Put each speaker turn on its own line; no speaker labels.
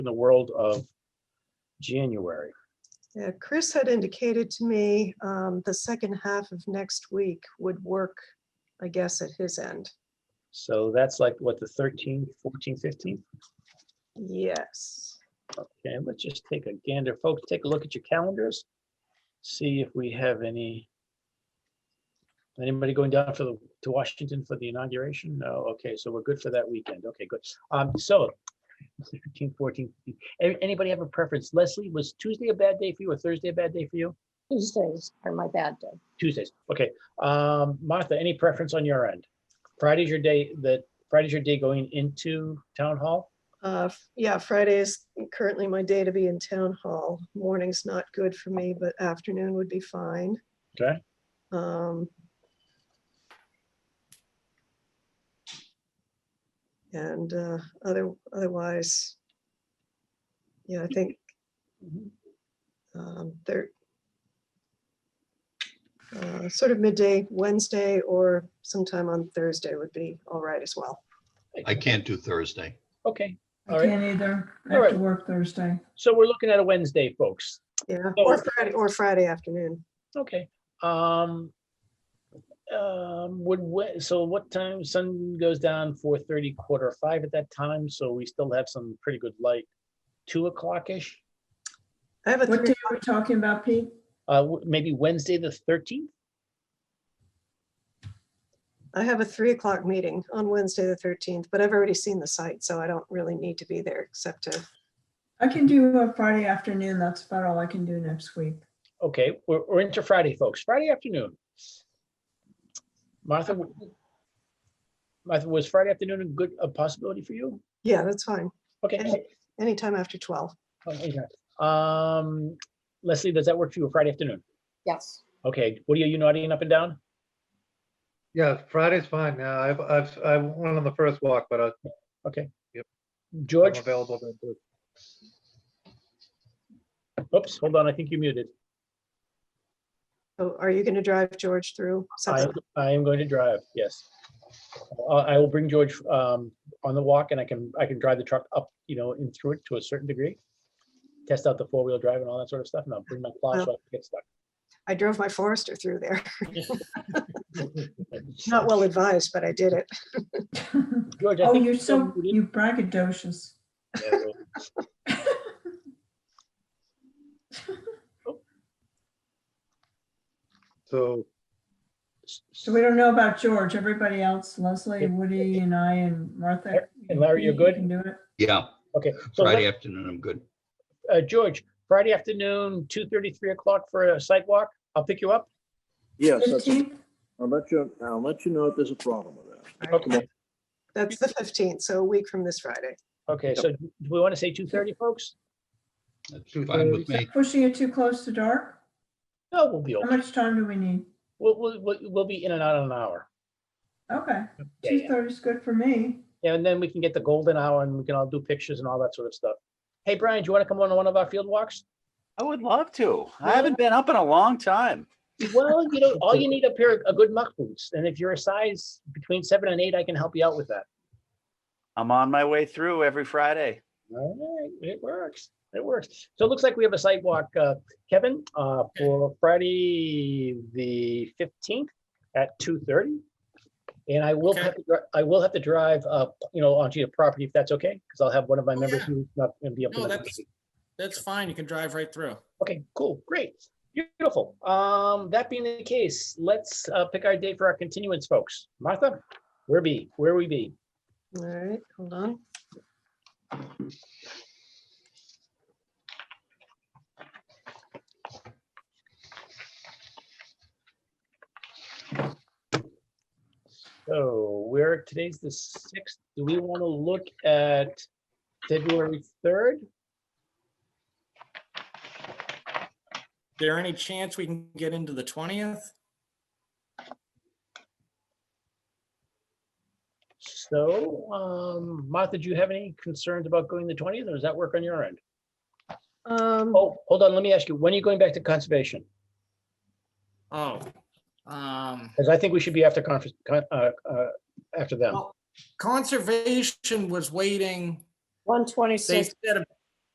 in the world of January.
Yeah, Chris had indicated to me um, the second half of next week would work, I guess, at his end.
So that's like, what, the 13th, 14th, 15th?
Yes.
Okay, let's just take a gander. Folks, take a look at your calendars. See if we have any. Anybody going down for the, to Washington for the inauguration? No, okay, so we're good for that weekend. Okay, good. Um, so. 13, 14. A- Anybody have a preference? Leslie, was Tuesday a bad day for you or Thursday a bad day for you?
Tuesdays are my bad day.
Tuesdays, okay. Um, Martha, any preference on your end? Friday's your day, that, Friday's your day going into town hall?
Uh, f- Yeah, Friday is currently my day to be in town hall. Morning's not good for me, but afternoon would be fine.
Okay.
Um, And uh, other, otherwise, yeah, I think um, thir uh, sort of midday Wednesday or sometime on Thursday would be all right as well.
I can't do Thursday.
Okay, all
I
right.
can't either. I
All
have
right.
to work Thursday.
So we're looking at a Wednesday, folks.
Yeah,
Oh,
So-
or Friday, or Friday afternoon.
Okay, um. Um, would, we- so what time, sun goes down four thirty, quarter five at that time, so we still have some pretty good light. Two o'clock-ish,
I have a
What
three,
day are we talking about, Pete?
uh, w- maybe Wednesday, the thirteenth?
I have a three o'clock meeting on Wednesday, the thirteenth, but I've already seen the site, so I don't really need to be there except to,
I can do a Friday afternoon. That's about all I can do next week.
Okay, we're, we're into Friday, folks, Friday afternoon. Martha, w- Martha, was Friday afternoon a good, a possibility for you?
yeah, that's fine.
Okay.
Any- Anytime after twelve.
oh, okay. Um, Leslie, does that work for you, Friday afternoon?
Yes.
Okay, Woody, are you nodding up and down?
Yeah, Friday's fine. Yeah, I've, I've, I went on the first walk, but I-
Okay.
Yep. I'm
George,
available. then, too.
oops, hold on, I think you muted.
So Oh, are you going to drive George through?
I,
something?
I am going to drive, yes. I, I will bring George um, on the walk and I can, I can drive the truck up, you know, and through it to a certain degree. Test out the four-wheel drive and all that sort of stuff and I'll bring my plow so I can get stuck.
I drove my Forester through there. Not well advised, but I did it.
George, I
Oh,
think.
you're so,
muted.
you braggadocious.
Yeah, well,
So,
So we don't know about George. Everybody else, Leslie, Woody and I and Martha.
And Larry, you're
you
good?
can do it.
Yeah,
Okay, so
Friday
let-
afternoon, I'm good.
uh, George, Friday afternoon, two thirty, three o'clock for a site walk. I'll pick you up.
Yes, that's-
15th?
I'll let you, I'll let you know if there's a problem with that.
Okay,
That's the fifteenth, so a week from this Friday.
okay, so do we want to say two thirty, folks?
That's
Two
fine with
Is that
me.
Pushing it too close to dark?
No, we'll be,
How
okay.
much time do we need?
we'll, we'll, we'll- we'll be in and out in an hour.
Okay,
Yeah,
two
yeah.
thirty is good for me.
And then we can get the golden hour and we can all do pictures and all that sort of stuff. Hey, Brian, do you want to come on one of our field walks?
I would love to. I haven't been up in a long time.
Well, you know, all you need up here are good muck boots. And if you're a size between seven and eight, I can help you out with that.
I'm on my way through every Friday.
All right, it works. It works. So it looks like we have a sidewalk, uh, Kevin, uh, for Friday, the fifteenth at two thirty. And I will have, to dri- I will have to drive up, you know, onto your property if that's okay, because I'll have one of my
Oh,
members
yeah.
who's not gonna be up. for
No,
the
that's, that's fine. You can drive right through.
Okay, cool, great, beautiful. Um, that being the case, let's, uh, pick our day for our continuance, folks. Martha, where be, where we be?
All right, hold on.
So we're, today's the sixth. Do we want to look at February third?
There any chance we can get into the twentieth?
So, um, Martha, do you have any concerns about going the twentieth, or does that work on your end?
Um,
Oh, hold on, let me ask you, when are you going back to conservation?
Oh, um,
Because I think we should be after conference, con- uh, uh, after them.
Well- conservation was waiting.
One
They
twenty-six,
said,